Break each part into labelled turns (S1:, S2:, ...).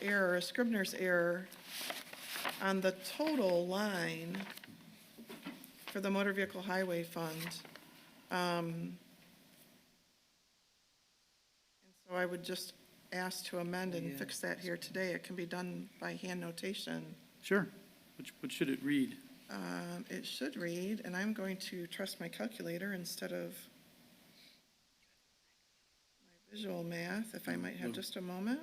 S1: error, a Scribner's error on the total line for the motor vehicle highway fund. Um, and So I would just ask to amend and fix that here today. It can be done by hand notation.
S2: Sure. What, sh- what should it read?
S1: Um, It should read, and I'm going to trust my calculator instead of my visual math, if I might have just a moment.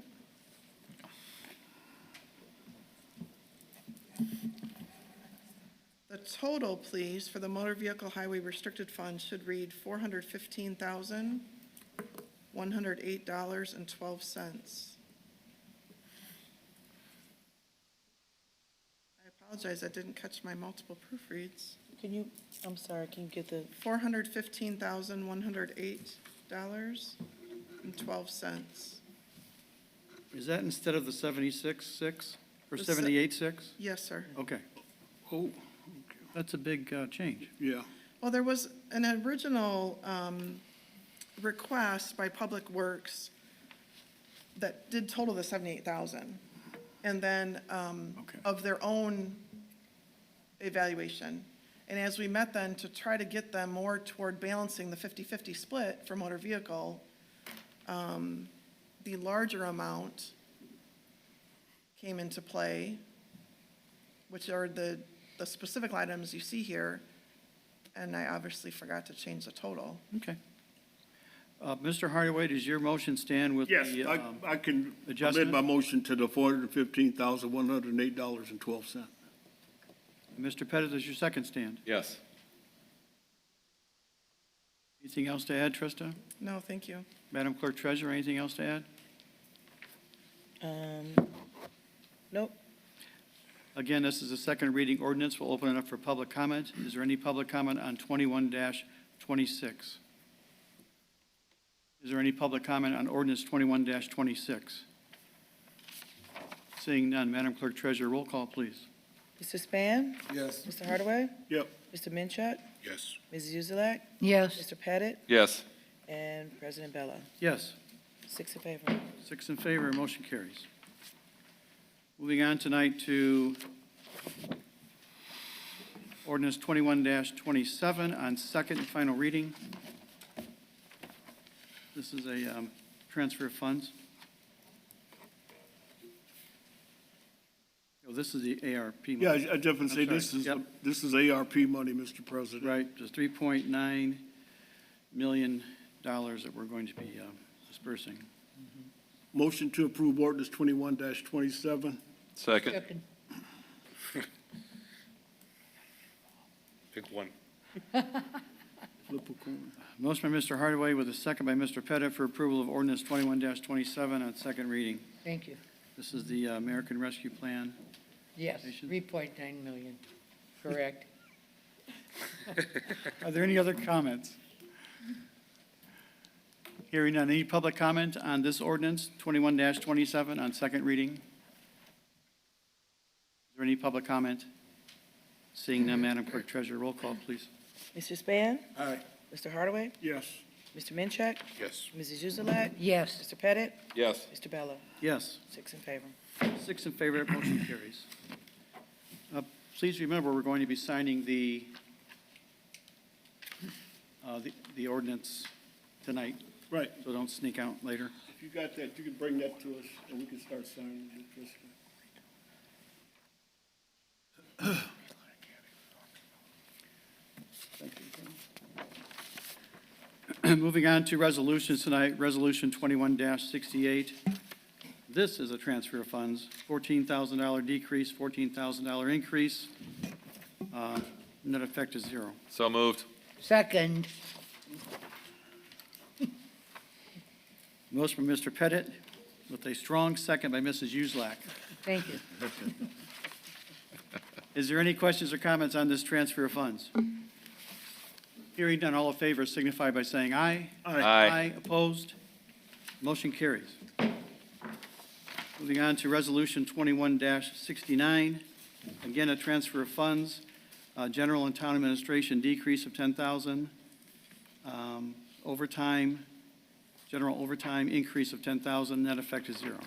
S1: The total, please, for the motor vehicle highway restricted fund should read four hundred fifteen thousand, one hundred eight dollars and twelve cents. I apologize, I didn't catch my multiple proofreads.
S3: Can you, I'm sorry, can you get the,
S1: Four hundred fifteen thousand, one hundred eight dollars and twelve cents.
S2: Is that instead of the seventy-six, six, or
S1: The se-
S2: seventy-eight, six?
S1: Yes, sir.
S2: Okay. Oh, that's a big, uh, change.
S4: Yeah,
S1: Well, there was an original um, request by Public Works that did total the 78,000. And then um,
S4: Okay.
S1: of their own evaluation. And as we met then to try to get them more toward balancing the 50/50 split for motor vehicle, um, the larger amount came into play, which are the, the specific items you see here. And I obviously forgot to change the total.
S2: Okay. Uh, Mr. Hardaway, does your motion stand with the?
S4: yes, I,
S2: um,
S4: I can amend
S2: adjustment?
S4: my motion to the four hundred and fifteen thousand, one hundred and eight dollars and twelve cent.
S2: Mr. Pettit, does your second stand?
S5: Yes.
S2: Anything else to add, Trista?
S1: No, thank you.
S2: Madam Clerk Treasurer, anything else to add?
S3: um, nope,
S2: Again, this is a second reading ordinance. We'll open it up for public comment. Is there any public comment on twenty-one twenty-six? Is there any public comment on ordinance twenty-one twenty-six? Seeing none, Madam Clerk Treasurer, roll call, please.
S3: Mr. Span?
S4: Yes.
S3: Mr. Hardaway?
S4: Yep.
S3: Mr. Minchuk?
S4: Yes.
S3: Ms. Uzelak?
S6: yes,
S3: Mr. Pettit?
S5: Yes.
S3: And President Bella.
S2: Yes,
S3: Six in favor.
S2: six in favor, motion carries. Moving on tonight to ordinance twenty-one twenty-seven on second and final reading. This is a um, transfer of funds. Oh, This is the ARP. money.
S4: Yeah, I I definitely say
S2: I'm sorry.
S4: this is,
S2: Yep.
S4: this is ARP money, Mr. President.
S2: Right, just three point nine million dollars that we're going to be um, dispersing.
S4: Motion to approve ordinance twenty-one twenty-seven.
S5: Second.
S6: second,
S5: Pick one.
S4: Flip a coin.
S2: Motion by Mr. Hardaway with a second by Mr. Pettit for approval of ordinance twenty-one twenty-seven on second reading.
S6: thank you.
S2: This is the uh, American Rescue Plan.
S6: Yes,
S2: Patient?
S6: 3.9 million, correct.
S2: Are there any other comments? Hearing none, any public comment on this ordinance twenty-one twenty-seven on second reading? Is there any public comment? Seeing none, Madam Clerk Treasurer, roll call, please.
S3: Mr. Span?
S4: Aye.
S3: Mr. Hardaway?
S4: Yes.
S3: Mr. Minchuk?
S5: Yes.
S3: Mrs. Uzelak?
S6: Yes.
S3: Mr. Pettit?
S5: Yes.
S3: Mr. Bella.
S2: Yes.
S3: Six in favor.
S2: Six in favor, that motion carries. Uh, Please remember, we're going to be signing the, uh, the- the ordinance tonight,
S4: Right.
S2: so don't sneak out later.
S4: If you got that, you can bring that to us, and we can start signing it, Trustee.
S2: Moving on to resolutions tonight, Resolution 21-68. This is a transfer of funds, $14,000 decrease, $14,000 increase. Uh, Net effect is zero.
S5: So moved.
S6: Second,
S2: Motion by Mr. Pettit with a strong second by Mrs. Uszak.
S6: thank you.
S2: Is there any questions or comments on this transfer of funds? Hearing none, all in favor signify by saying aye.
S5: Aye. Aye.
S2: opposed? Motion carries. Moving on to Resolution 21-69, again, a transfer of funds, Uh, general and town administration decrease of 10,000, Um, overtime, general overtime increase of 10,000, net effect is zero.